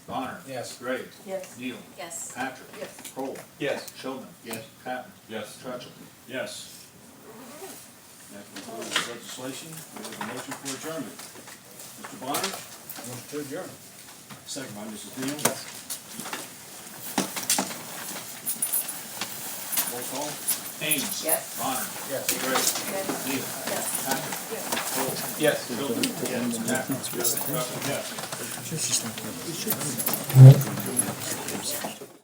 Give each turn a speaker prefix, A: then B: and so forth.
A: Bonner.
B: Yes.
A: Gray.
C: Yes.
A: Neal.
C: Yes.
A: Patrick.
C: Yes.
A: Cole.
D: Yes.
A: Showman.
B: Yes.
A: Patton.
D: Yes.
A: Trutchell.
D: Yes. That concludes legislation. We have a motion for adjournment. Mr. Bonner?
B: Motion to adjourn.
D: Second by Mrs. Neal. Roll call.
A: Ames.
C: Yes.
A: Bonner.
B: Yes.
A: Gray.
C: Yes.
A: Neal.
C: Yes.
A: Patrick. Cole.
D: Yes.
A: Showman. Yes. Patton. Trutchell. Yes.